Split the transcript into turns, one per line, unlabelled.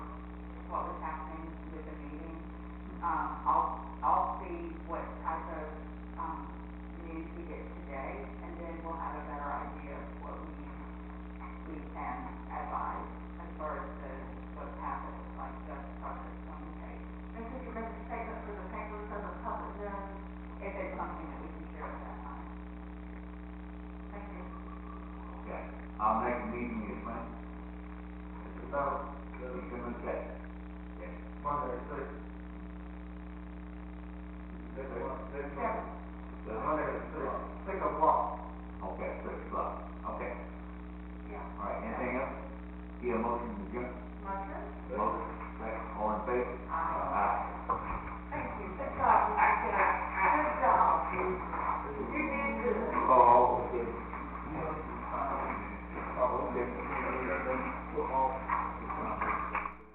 what's happening with the meeting. Um, I'll, I'll see what type of, um, news we get today, and then we'll have a better idea of what we, we can advise as far as the, what's happening, like justice projects on the case.
And could you make a statement for the paper so the public knows?
If it's something that we can share at that time.
Thank you.
Okay, I'll make a meeting this month. Mr. Bell, Mr. McKay. Yes.
Monday, six. Six o'clock, six o'clock.
The
Monday,
hundred and
six,
six.
six o'clock.
Okay, six o'clock, okay,
Yeah.
all right, anything else? Get a motion to adjourn?
Motion?
Motion, second, all in favor?